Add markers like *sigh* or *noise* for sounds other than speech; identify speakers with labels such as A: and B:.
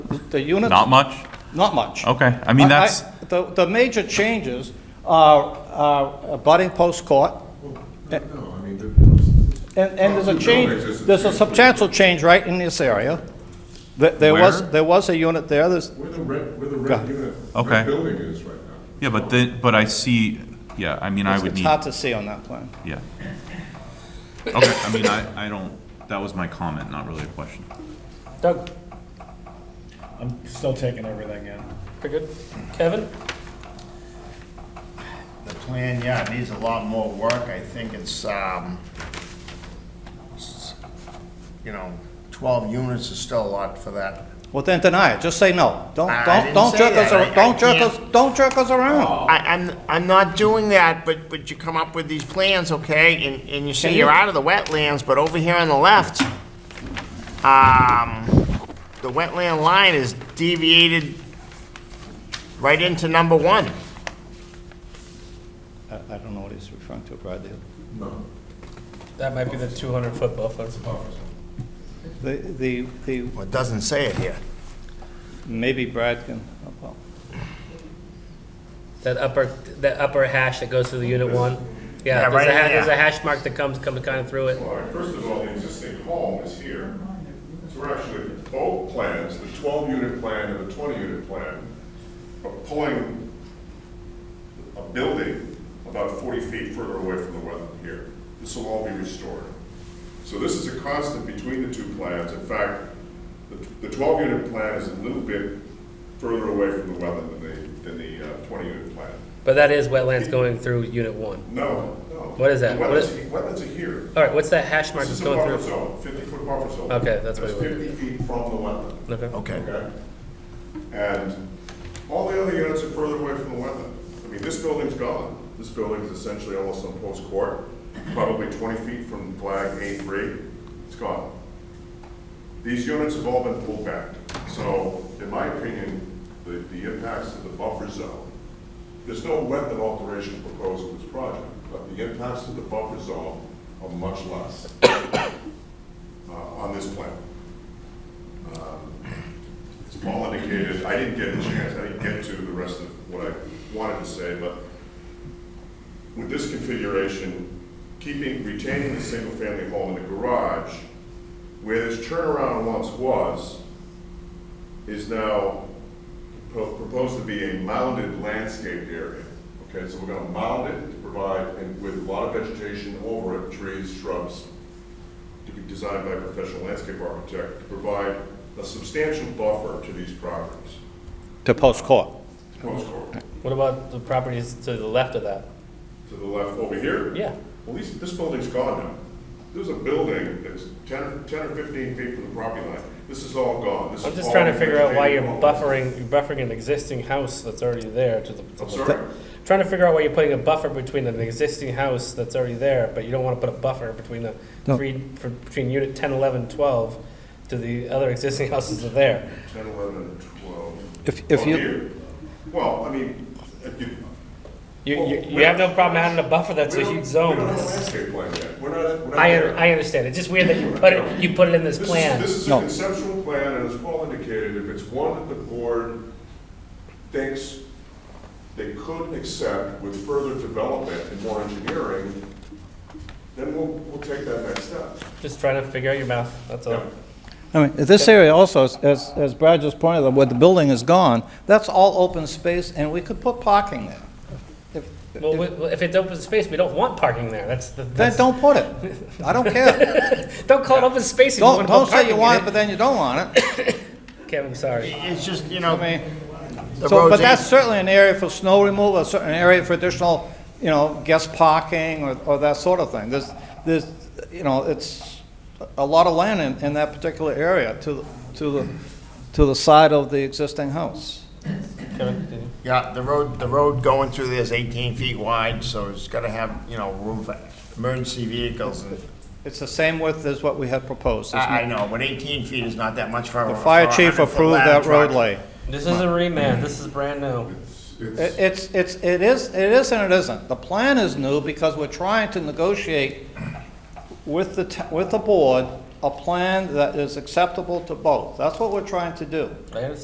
A: the units.
B: Not much?
A: Not much.
B: Okay, I mean, that's-
A: The, the major changes are, are abutting post court,
C: No, I mean, the-
A: and, and there's a
C: No,
A: change,
C: it's just a
A: there's a
C: change.
A: substantial change right in this area. There, there was,
B: Where?
A: there was a unit there, there's,
C: where the red, where the red
A: Go.
C: unit,
B: Okay.
C: red building is right now.
B: Yeah, but then, but I see, yeah, I mean, I would
A: it's
B: need,
A: hard to see on that plan.
B: yeah. Okay, I mean, I, I don't, that was my comment, not really a question.
D: Doug,
E: I'm still taking everything in.
D: pretty good. Kevin?
E: The plan, yeah, it needs a lot more work. I think it's, um, s- you know, twelve units is still a lot for that.
A: Well, then deny it, just say no. Don't,
E: I- I
A: don't,
E: didn't
A: don't
E: say
A: jerk us,
E: that. I-
A: ar- don't
E: I
A: jerk us,
E: can't-
A: don't jerk us around.
E: I, I'm, I'm not doing that, but, but you come up with these plans, okay, and, and you say
A: Can
E: you're
A: you-
E: out of the wetlands, but over here on the left, um, the wetland line is deviated right into number one.
A: I, I don't know what he's referring to, Brad. The-
C: No,
D: That might be the 200-foot buffer.
A: The, the, the,
E: Well, it doesn't say it here.
A: maybe Brad can, oh, well,
D: That upper, that upper hash that goes through the unit one.
E: Yeah,
D: Yeah, there's
E: right
D: a, ha-
E: in there.
D: there's a hash mark that comes, comes kind of through it.
C: All right, first of all, the existing home is here. So we're actually, both plans, the 12-unit plan and the 20-unit plan, are pulling a building about 40 feet further away from the wetland here. This will all be restored. So this is a constant between the two plans. In fact, the 12-unit plan is a little bit further away from the wetland than the, than the 20-unit plan.
D: But that is wetlands going through unit one.
C: No, no.
D: What is that?
C: The
D: What is-
C: Wetlands wetlands are here.
D: All right, what's that hash mark
C: This is
D: that's
C: a
D: going
C: buffer
D: through?
C: zone, fifty-foot buffer zone.
D: Okay, that's what it would be.
C: Fifty feet from the wetland,
D: Okay.
E: Okay.
C: okay? And all the other units are further away from the wetland. I mean, this building's gone. This building's essentially almost on post court, probably twenty feet from flag A three, it's gone. These units have all been pulled back. So in my opinion, the, the impacts of the buffer zone, there's no wetland alteration proposed in this project, but the impacts of the buffer zone are much less *coughs* uh, on this plan. Um, As Paul indicated, I didn't get a chance, I didn't get to the rest of what I wanted to say, but with this configuration, keeping, retaining the single-family home in the garage, where this turnaround once was, is now pro- proposed to be a mounded landscaped area. Okay, so we're gonna mound it to provide, and with a lot of vegetation over it, trees, shrubs, to be designed by a professional landscape architect to provide a substantial buffer to these properties.
A: to post court.
C: Post court,
D: What about the properties to the left of that?
C: to the left over here.
D: Yeah.
C: Well, these, this building's gone now. There's a building that's 10 or 10 or 15 feet from the property line. This is all gone. This
D: I'm
C: is
D: just
C: all
D: trying to figure out why you're
C: vegetated homes.
D: buffering, you're buffering an existing house that's already there to the. to
C: I'm
D: the-
C: sorry?
D: Trying to figure out why you're putting a buffer between an existing house that's already there, but you don't want to put a buffer between the
A: No.
D: three, for- between unit 10, 11, 12 to the other existing *laughs* houses that are there.
C: 10, 11, and 12.
A: If, if
C: Well,
A: you,
C: here. Well, I mean, if you.
D: You,
C: Well,
D: you, you
C: we're-
D: have no problem adding a buffer that's
C: we
D: a
C: don't-
D: huge zone.
C: We don't have a landscape plan yet. We're not, we're not
D: I,
C: there.
D: I understand, it's just weird that you put it, you put it in this
C: This is-
D: plan.
C: This is a
A: No.
C: conceptual plan, and as Paul indicated, if it's one that the board thinks they could accept with further development and more engineering, then we'll, we'll take that next step.
D: Just trying to figure out your math, that's all.
A: I mean, this area also, as- as, as Brad just pointed out, where the building is gone, that's all open space, and we could put parking there. If-
D: Well, we- well, if it's open space, we don't want parking there, that's the.
A: Then
D: that's-
A: don't put it. I don't
D: *laughs*
A: care.
D: Don't call it open space if you
A: Don't,
D: want to
A: don't
D: put
A: say you
D: parking in
A: want it, but
D: it.
A: then you don't want it.
D: Kevin, sorry.
E: It's just, you
A: I
E: know,
A: mean,
E: the
A: so, but
E: roads,
A: that's
E: ain't-
A: certainly an area for snow removal, a certain area for additional, you know, guest parking or, or that sort of thing. There's, there's, you know, it's a lot of land in, in that particular area to, the- to the, to the side of the existing house.
E: yeah, the road, the road going through there is eighteen feet wide, so it's gotta have, you know, room for emergency vehicles and,
A: It's the same width as what we had proposed.
D: Ah,
A: There's no-
E: I, I know, but eighteen feet is not that much for.
A: The
E: a-
A: fire
E: for a
A: chief
E: 100 foot
A: approved
E: ladder
A: that
E: truck.
A: road lay.
D: This is a remand, this is brand new.
A: It- It's, it's, it is, it is and it isn't. The plan is new because we're trying to negotiate with the, t- with the board a plan that is acceptable to both. That's what we're trying to do.
D: I understand